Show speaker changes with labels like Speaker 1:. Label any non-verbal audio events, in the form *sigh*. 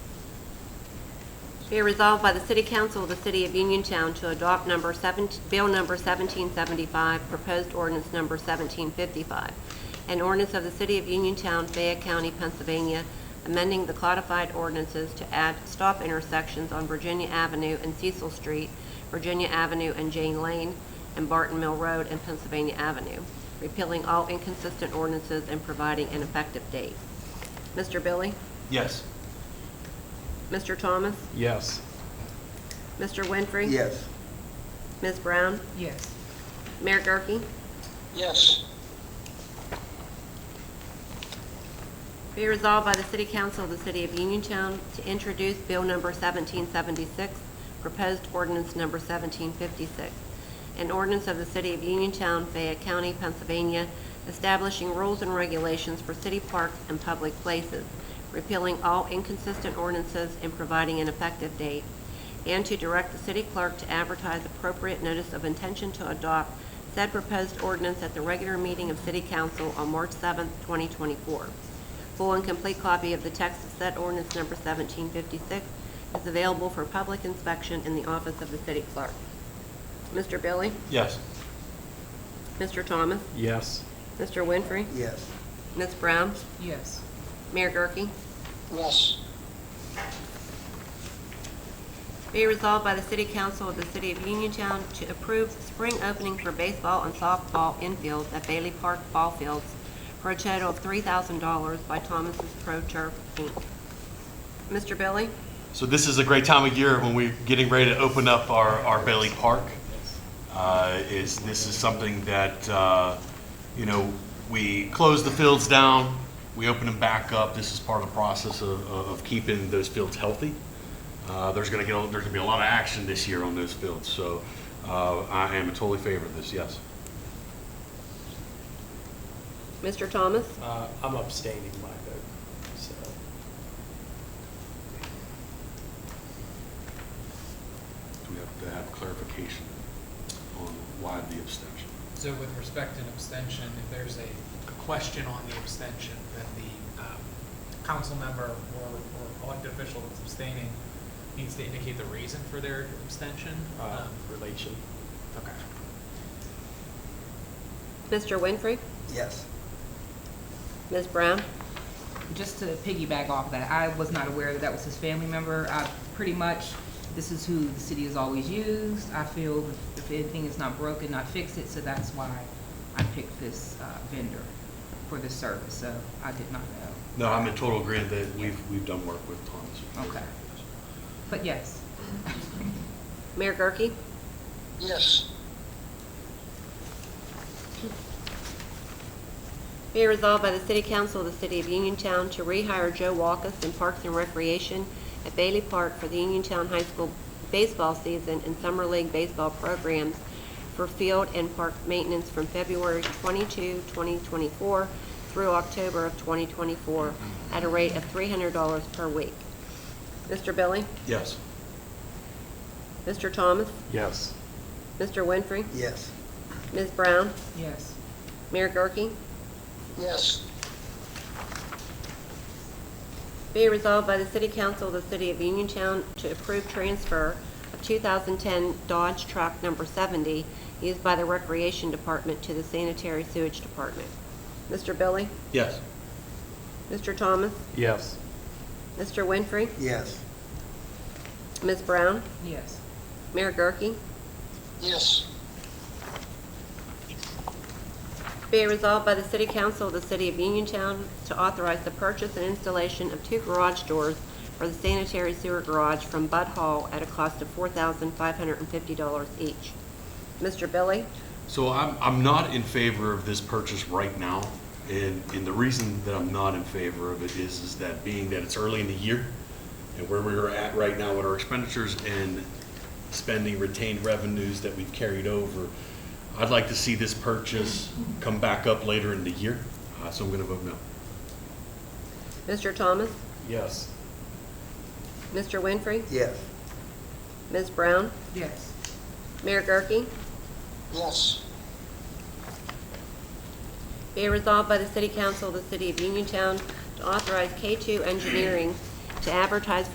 Speaker 1: Be it resolved by the City Council of the City of Uniontown to adopt number 17, Bill number 1775, proposed ordinance number 1755, an ordinance of the City of Uniontown, Fayette County, Pennsylvania, amending the codified ordinances to add stop intersections on Virginia Avenue and Cecil Street, Virginia Avenue and Jane Lane, and Barton Mill Road and Pennsylvania Avenue, repealing all inconsistent ordinances and providing an effective date. Mr. Billy?
Speaker 2: Yes.
Speaker 1: Mr. Thomas?
Speaker 2: Yes.
Speaker 1: Mr. Winfrey?
Speaker 3: yes,
Speaker 1: Ms. Brown?
Speaker 4: yes,
Speaker 1: Mayor Gurke?
Speaker 5: yes,
Speaker 1: Be resolved by the City Council of the City of Uniontown to introduce Bill Number 1776, proposed ordinance Number 1756, an ordinance of the City of Uniontown, Fayette County, Pennsylvania, establishing rules and regulations for city parks and public places, repealing all inconsistent ordinances and providing an effective date, and to direct the city clerk to advertise appropriate notice of intention to adopt said proposed ordinance at the regular meeting of City Council on March 7, 2024. Full and complete copy of the text of said ordinance number 1756 is available for public inspection in the office of the city clerk. Mr. Billy?
Speaker 2: Yes.
Speaker 1: Mr. Thomas?
Speaker 2: Yes.
Speaker 1: Mr. Winfrey?
Speaker 3: yes,
Speaker 1: Ms. Brown?
Speaker 4: yes,
Speaker 1: Mayor Gurke?
Speaker 5: yes,
Speaker 1: Be resolved by the City Council of the City of Uniontown to approve spring opening for baseball and softball infields at Bailey Park Ball Fields for a total of $3,000 by Thomas's Pro Turf, Inc. Mr. Billy?
Speaker 2: So this is a great time of year when we're getting ready to open up our, our Bailey Park. Uh, Is, this is something that, uh, you know, we close the fields down, we open them back up. This is part of the process of, of of keeping those fields healthy. Uh, There's going to get, there's going to be a lot of action this year on those fields, so uh, I am in totally favor of this, yes.
Speaker 1: Mr. Thomas?
Speaker 6: Uh, I'm abstaining my vote, so,
Speaker 2: Do we have to have clarification on why the abstention?
Speaker 7: So with respect to an abstention, if there's a question on the abstention, then the um, council member or or elected official that's abstaining needs to indicate the reason for their abstention.
Speaker 6: uh,
Speaker 7: Um,
Speaker 6: relation.
Speaker 7: Okay.
Speaker 1: Mr. Winfrey?
Speaker 3: yes.
Speaker 1: Ms. Brown?
Speaker 4: just to piggyback off of that, I was not aware that that was his family member. I pretty much, this is who the city has always used. I feel if anything is not broken, not fix it, so that's why I picked this uh, vendor for this service, so I did not know.
Speaker 2: No, I'm in total agreement that we've, we've done work with Thomas.
Speaker 4: Okay. But yes, *laughs*
Speaker 1: Mayor Gurke?
Speaker 5: yes,
Speaker 1: Be it resolved by the City Council of the City of Uniontown to rehire Joe Walkus in Parks and Recreation at Bailey Park for the Uniontown High School baseball season and Summer League baseball programs for field and park maintenance from February 22, 2024 through October of 2024 at a rate of $300 per week. Mr. Billy?
Speaker 2: Yes.
Speaker 1: Mr. Thomas?
Speaker 6: Yes.
Speaker 1: Mr. Winfrey?
Speaker 3: Yes,
Speaker 1: Ms. Brown?
Speaker 4: yes,
Speaker 1: Mayor Gurke?
Speaker 5: yes,
Speaker 1: Be it resolved by the City Council of the City of Uniontown to approve transfer of 2010 Dodge Truck Number 70 used by the Recreation Department to the Sanitary Sewage Department. Mr. Billy?
Speaker 2: Yes.
Speaker 1: Mr. Thomas?
Speaker 6: Yes.
Speaker 1: Mr. Winfrey?
Speaker 3: yes,
Speaker 1: Ms. Brown?
Speaker 4: yes,
Speaker 1: Mayor Gurke?
Speaker 5: yes,
Speaker 1: Be it resolved by the City Council of the City of Uniontown to authorize the purchase and installation of two garage doors for the sanitary sewer garage from Bud Hall at a cost of $4,550 each. Mr. Billy?
Speaker 2: So I'm, I'm not in favor of this purchase right now. And, and the reason that I'm not in favor of it is, is that being that it's early in the year and where we're at right now with our expenditures and spending retained revenues that we've carried over, I'd like to see this purchase come back up later in the year. Uh, So I'm going to vote no.
Speaker 1: Mr. Thomas?
Speaker 6: Yes.
Speaker 1: Mr. Winfrey?
Speaker 3: yes,
Speaker 1: Ms. Brown?
Speaker 4: yes,
Speaker 1: Mayor Gurke?
Speaker 5: yes,
Speaker 1: Be it resolved by the City Council of the City of Uniontown to authorize K2 Engineering to advertise